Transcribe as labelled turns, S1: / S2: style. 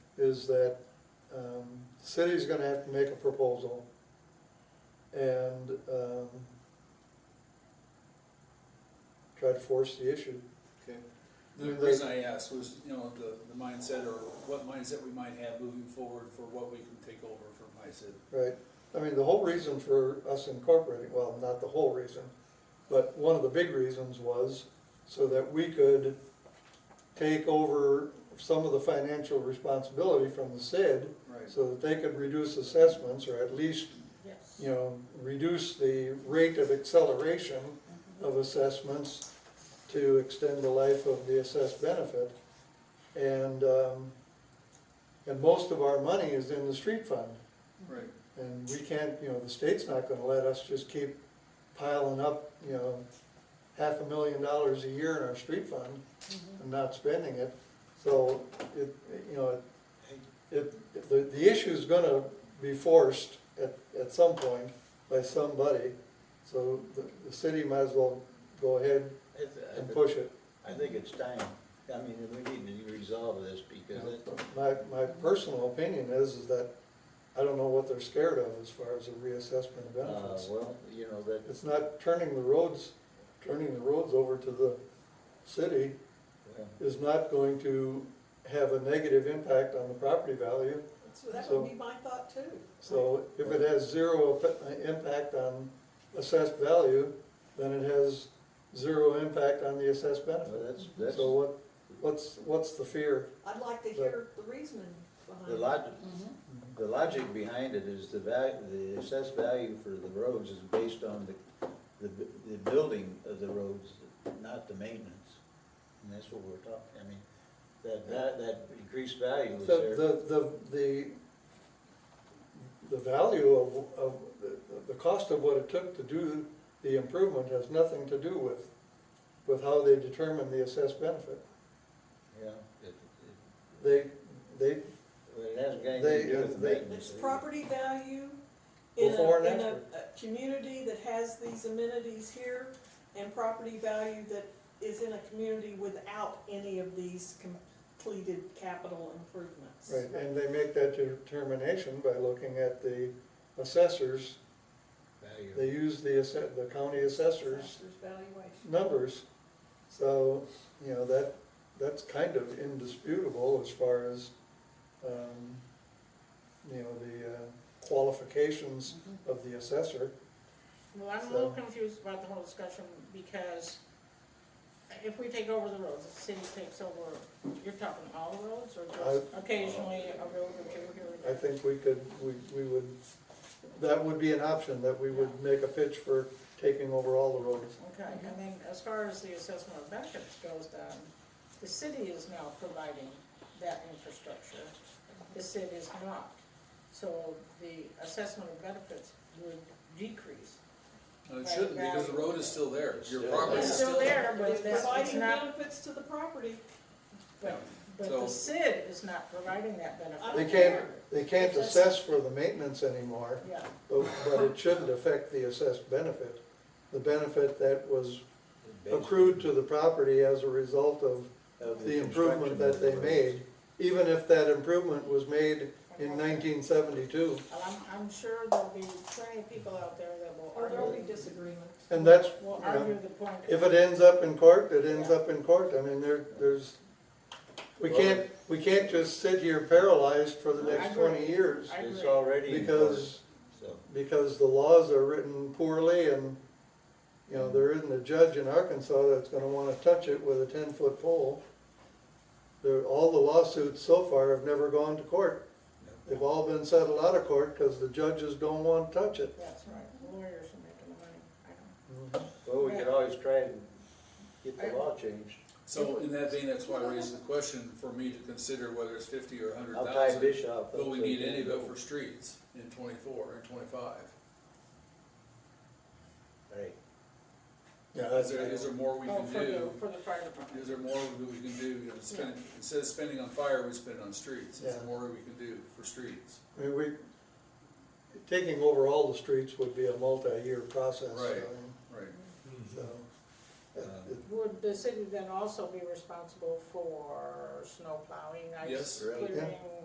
S1: is that, um, city's gonna have to make a proposal. And, um, try to force the issue.
S2: Okay. The reason I asked was, you know, the, the mindset or what mindset we might have moving forward for what we can take over from HICID.
S1: Right, I mean, the whole reason for us incorporating, well, not the whole reason, but one of the big reasons was so that we could take over some of the financial responsibility from the SID,
S2: Right.
S1: so that they could reduce assessments, or at least,
S3: Yes.
S1: you know, reduce the rate of acceleration of assessments to extend the life of the assessed benefit. And, um, and most of our money is in the street fund.
S2: Right,
S1: And we can't, you know, the state's not gonna let us just keep piling up, you know, half a million dollars a year in our street fund and not spending it. So it, you know, it, it- the, the issue's gonna be forced at, at some point by somebody. So the, the city might as well go ahead
S4: It's- uh,
S1: and push it.
S4: I think it's time, I mean, we need to resolve this because it,
S1: My, my personal opinion is, is that I don't know what they're scared of as far as a reassessment of
S4: uh,
S1: benefits.
S4: well, you know, that,
S1: It's not turning the roads, turning the roads over to the city
S4: well,
S1: is not going to have a negative impact on the property value.
S3: So that
S1: So-
S3: would be my thought too.
S1: So if it has zero ep- impact on assessed value, then it has zero impact on the assessed benefit.
S4: well, that's, that's,
S1: So
S4: the
S1: what, what's, what's the fear?
S3: I'd like to hear the reasoning behind it. Mm-hmm.
S4: logic, the logic behind it is the value, the assessed value for the roads is based on the, the, bu- the building of the roads, not the maintenance. And that's what we're talking, I mean, that, that, that increased value is there.
S1: The, the, the, the, the value of, of, the- the cost of what it took to do the improvement has nothing to do with, with how they determine the assessed benefit.
S4: Yeah, it, it,
S1: They, they,
S4: it hasn't got anything to do with the
S1: They-
S4: maintenance.
S3: It's property value in a,
S1: Before and
S3: in a,
S1: after.
S3: a community that has these amenities here and property value that is in a community without any of these completed capital improvements.
S1: right, and they make that determination by looking at the assessors,
S4: Value.
S1: they use the asse, the county assessors'
S3: Assessor's valuation.
S1: numbers. So, you know, that, that's kind of indisputable as far as, um, you know, the uh, qualifications of the assessor.
S5: Well, I'm a
S1: So-
S5: little confused about the whole discussion because if we take over the roads, the city takes over, you're talking all the roads or just occasionally a road or two here or
S1: I
S5: there?
S1: think we could, we, we would, that would be an option, that we would make a pitch for taking over all the roads.
S5: Okay, and then as far as the assessment of benefits goes then, the city is now providing that infrastructure. The city is not. So the assessment of benefits would decrease.
S2: No, it shouldn't, because the road is still there, your property
S5: It's
S2: is
S5: still there, but
S3: It's
S5: it's it's
S3: providing
S5: not,
S3: benefits to the property.
S2: Yeah,
S5: but, but
S2: so-
S5: the CID is not providing that benefit.
S1: They
S3: don't
S1: can't,
S3: care.
S1: they can't
S5: Assess-
S1: assess for the maintenance anymore,
S5: Yeah.
S1: but, but it shouldn't affect the assessed benefit. The benefit that was accrued to the property as a result of
S4: Of
S1: the improvement that they made, even if that improvement was made in nineteen seventy-two.
S5: Well, I'm, I'm sure there'll be plenty of people out there that will
S3: Or there'll be
S5: argue,
S3: disagreements.
S1: And that's,
S5: will
S1: you know,
S5: argue the point.
S1: if it ends up in court, it ends up in court. I mean, there, there's, we can't, we can't just sit here paralyzed for the next twenty years.
S5: I
S4: It's
S5: agree.
S4: already. in order,
S1: Because
S4: So,
S1: because the laws are written poorly and, you know, there isn't a judge in Arkansas that's gonna wanna touch it with a ten-foot pole. There, all the lawsuits so far have never gone to court. They've all been settled out of court because the judges don't wanna touch it.
S5: That's right, lawyers are making the money, I
S4: well, we could always try and get the law changed.
S2: So in that vein, that's why I raised the question for me to consider whether it's fifty or a hundred
S4: I'll tie
S2: thousand.
S4: Bishop. up
S2: Will we
S4: so
S2: need
S4: he
S2: any of it
S4: can
S2: for streets in twenty-four and twenty-five?
S4: go. Right,
S1: Yeah,
S2: Is there, is there more we
S5: don't know. Oh,
S2: can
S5: for the,
S2: do?
S5: for the fire
S2: Is
S5: department.
S2: there more that we can do, you know, spend, instead of spending on fire, we spend on streets, is
S1: Yeah.
S2: there more we can do for streets?
S1: I mean, we, taking over all the streets would be a multi-year process. so,
S2: Right. Right,
S1: So, it- it-
S5: Would the city then also be responsible for snow plowing, ice
S2: Yes.
S5: clearing?
S1: Yeah.